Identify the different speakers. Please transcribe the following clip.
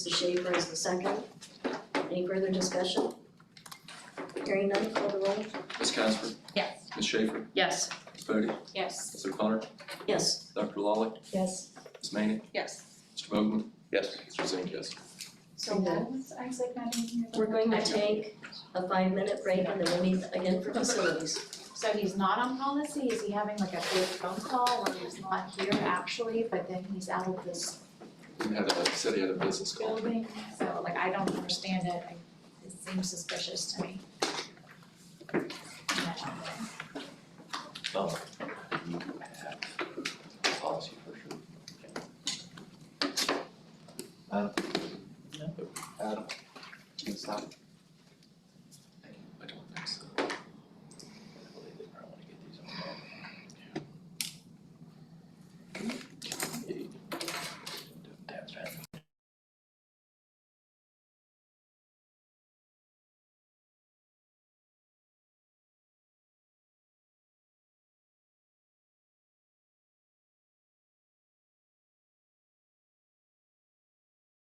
Speaker 1: Mrs. Schaefer is the second. Any further discussion? Hearing none, call the roll.
Speaker 2: Ms. Casper?
Speaker 3: Yes.
Speaker 2: Ms. Schaefer?
Speaker 3: Yes.
Speaker 2: Ms. Bodie?
Speaker 3: Yes.
Speaker 2: Ms. O'Connor?
Speaker 1: Yes.
Speaker 2: Dr. Lawley?
Speaker 1: Yes.
Speaker 2: Ms. Manning?
Speaker 3: Yes.
Speaker 2: Mr. Vogel?
Speaker 4: Yes.
Speaker 2: Mr. Zink, yes.
Speaker 5: So what was Isaac Manning?
Speaker 1: We're going to take a five-minute break and then we'll meet again for facilities.
Speaker 5: So he's not on policy, is he having like a big phone call when he's not here actually, but then he's out of this
Speaker 2: He had a, said he had a business call.
Speaker 5: building? So like, I don't understand it, I, it seems suspicious to me.
Speaker 4: Oh. You have policy for sure. Uh, no, uh, can you stop?